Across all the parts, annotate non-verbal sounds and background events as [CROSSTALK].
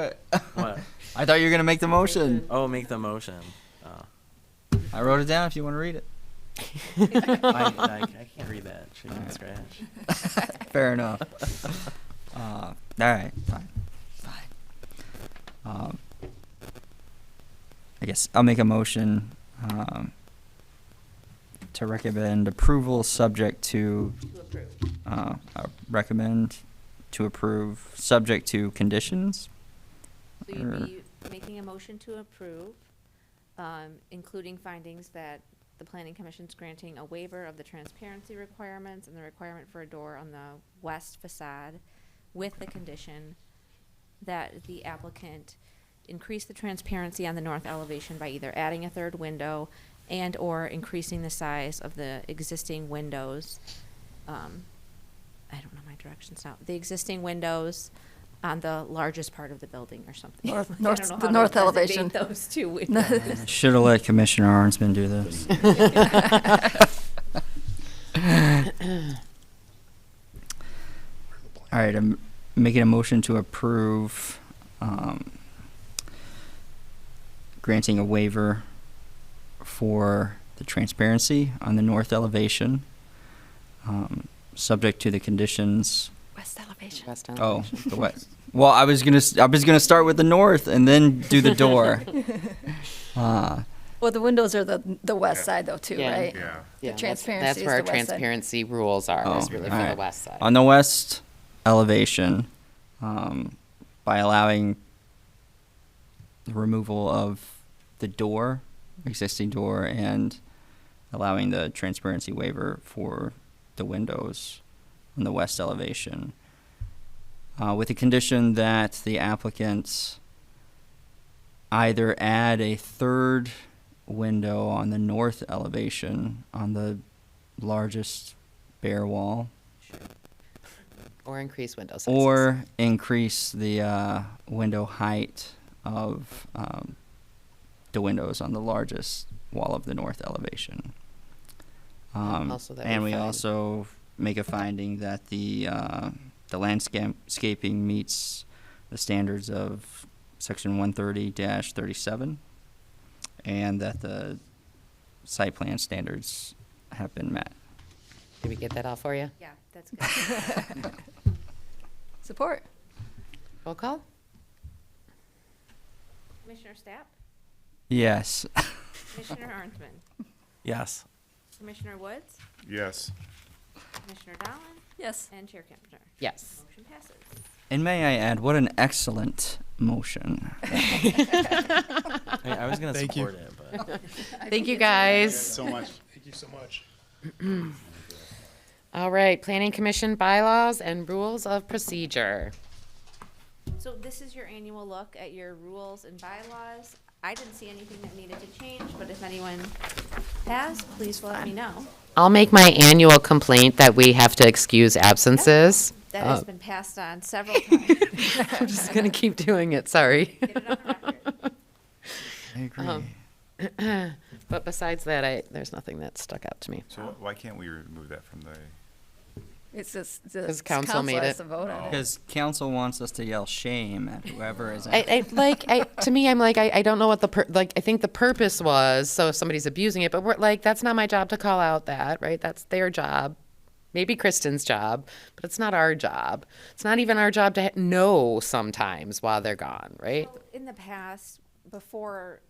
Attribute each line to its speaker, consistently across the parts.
Speaker 1: it.
Speaker 2: What?
Speaker 1: [LAUGHS] I thought you were gonna make the motion.
Speaker 2: Oh, make the motion. Oh.
Speaker 1: I wrote it down. If you want to read it, [LAUGHS]
Speaker 2: [LAUGHS] I, I, I can't read that.
Speaker 3: [LAUGHS]
Speaker 2: Chicken
Speaker 1: Alright.
Speaker 2: scratch.
Speaker 1: fair enough. Uh, all right, fine, fine. Um, I guess I'll make a motion um, to recommend approval, subject to
Speaker 4: to approve.
Speaker 1: uh, I recommend to approve, subject to conditions.
Speaker 4: So you'd
Speaker 1: Or-
Speaker 4: be making a motion to approve, um, including findings that the planning commission's granting a waiver of the transparency requirements and the requirement for a door on the west facade with the condition that the applicant increase the transparency on the north elevation by either adding a third window and/or increasing the size of the existing windows. um, I don't know my directions now. The existing windows on the largest part of the building or something.
Speaker 5: North-
Speaker 4: Like, [LAUGHS] I
Speaker 5: north-
Speaker 4: don't know
Speaker 5: the
Speaker 4: how to
Speaker 5: north
Speaker 4: designate
Speaker 5: elevation.
Speaker 4: Those
Speaker 5: [LAUGHS]
Speaker 6: [LAUGHS]
Speaker 4: two windows.
Speaker 1: Should have let Commissioner Arnsman do this. All right, I'm making a motion to approve um, granting a waiver for the transparency on the north elevation, um, subject to the conditions.
Speaker 5: West elevation.
Speaker 6: West End.
Speaker 1: Oh, the west. Well, I was gonna s- I was gonna start with the north and then do the door. uh,
Speaker 5: Well, the windows are the, the west side though too,
Speaker 6: Yeah.
Speaker 5: right?
Speaker 7: Yeah.
Speaker 6: Yeah, that's-
Speaker 5: transparency
Speaker 6: That's
Speaker 5: is
Speaker 6: where our
Speaker 5: the west side.
Speaker 6: transparency rules are,
Speaker 1: Oh,
Speaker 6: is really for the
Speaker 1: alright.
Speaker 6: west side.
Speaker 1: on the west elevation um, by allowing the removal of the door, existing door, and allowing the transparency waiver for the windows on the west elevation. Uh, with the condition that the applicants either add a third window on the north elevation on the largest bare wall
Speaker 6: Or increase window sizes.
Speaker 1: or increase the uh, window height of um, the windows on the largest wall of the north elevation. Um,
Speaker 6: Also that we
Speaker 1: and we
Speaker 6: find-
Speaker 1: also make a finding that the uh, the landscaping meets the standards of section 130-37, and that the site plan standards have been met.
Speaker 6: Did we get that all for you?
Speaker 4: Yeah, that's good.
Speaker 5: [LAUGHS] Support.
Speaker 6: Roll call?
Speaker 4: Commissioner Stapp,
Speaker 1: Yes.
Speaker 4: Commissioner Arnsman,
Speaker 2: [LAUGHS] Yes.
Speaker 4: Commissioner Woods,
Speaker 7: Yes.
Speaker 4: Commissioner Dolan,
Speaker 5: Yes.
Speaker 4: and Chair Kempner.
Speaker 6: Yes.
Speaker 4: Motion passes.
Speaker 1: And may I add, what an excellent motion.
Speaker 2: I, I was gonna
Speaker 3: Thank you.
Speaker 2: support it, but
Speaker 6: Thank you, guys.
Speaker 7: So much.
Speaker 3: [LAUGHS] Thank you so much.
Speaker 6: All right, Planning Commission bylaws and rules of procedure.
Speaker 4: So this is your annual look at your rules and bylaws. I didn't see anything that needed to change, but if anyone has, please let me know.
Speaker 6: I'll make my annual complaint that we have to excuse absences. Oh.
Speaker 4: That has
Speaker 6: Uh,
Speaker 4: been passed on several [LAUGHS] times.
Speaker 6: I'm just gonna keep doing it, sorry.
Speaker 4: Get it on the record.
Speaker 1: I agree.
Speaker 6: But besides that, I, there's nothing that stuck out to me.
Speaker 7: So why can't we remove that from the,
Speaker 5: It's just,
Speaker 6: Because
Speaker 5: the
Speaker 6: council
Speaker 5: council
Speaker 6: made
Speaker 5: has
Speaker 6: it.
Speaker 5: to vote on it.
Speaker 1: Because council wants us to yell shame at whoever is.
Speaker 6: I, I like I to me I'm like I, I don't know what the pur- like I think the purpose was so if somebody's abusing it but we're like that's not my job to call out that right that's their job maybe Kristen's job but it's not our job it's not even our job to ha- know sometimes while they're gone right
Speaker 4: Well, In the past, before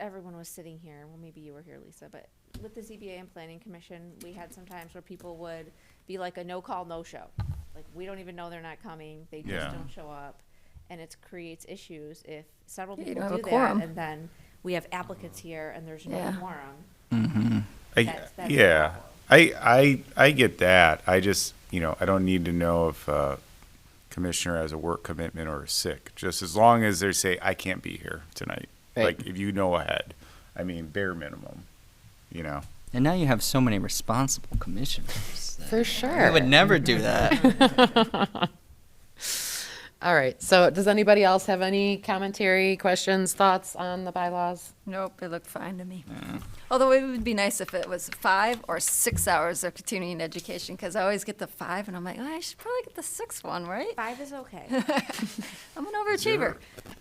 Speaker 4: everyone was sitting here, well, maybe you were here, Lisa, but with the ZBA and Planning Commission, we had some times where people would be like a no-call, no-show. Like, we don't even know they're not coming, they just
Speaker 7: Yeah.
Speaker 4: don't show up. And it creates issues if several
Speaker 5: Yeah, you
Speaker 4: people
Speaker 5: don't have
Speaker 4: do that,
Speaker 5: a quorum.
Speaker 4: and then we have applicants here and there's no
Speaker 5: Yeah.
Speaker 4: quorum.
Speaker 7: I,
Speaker 4: That's- that's the
Speaker 7: yeah, I, I, I get that. I just, you know, I don't need to know if a commissioner has a work commitment or is sick. Just as long as they say, I can't be here tonight.
Speaker 6: Right.
Speaker 7: Like, if you know ahead, I mean, bare minimum, you know?
Speaker 1: and now you have so many responsible commissioners.
Speaker 6: for sure
Speaker 1: I would never do that.
Speaker 6: All right. So does anybody else have any commentary, questions, thoughts on the bylaws?
Speaker 5: Nope, it looked fine to me. Although it would be nice if it was five or six hours of continuing education, because I always get the five, and I'm like, oh, I should probably get the sixth one, right?
Speaker 4: Five is okay.
Speaker 5: I'm an overachiever.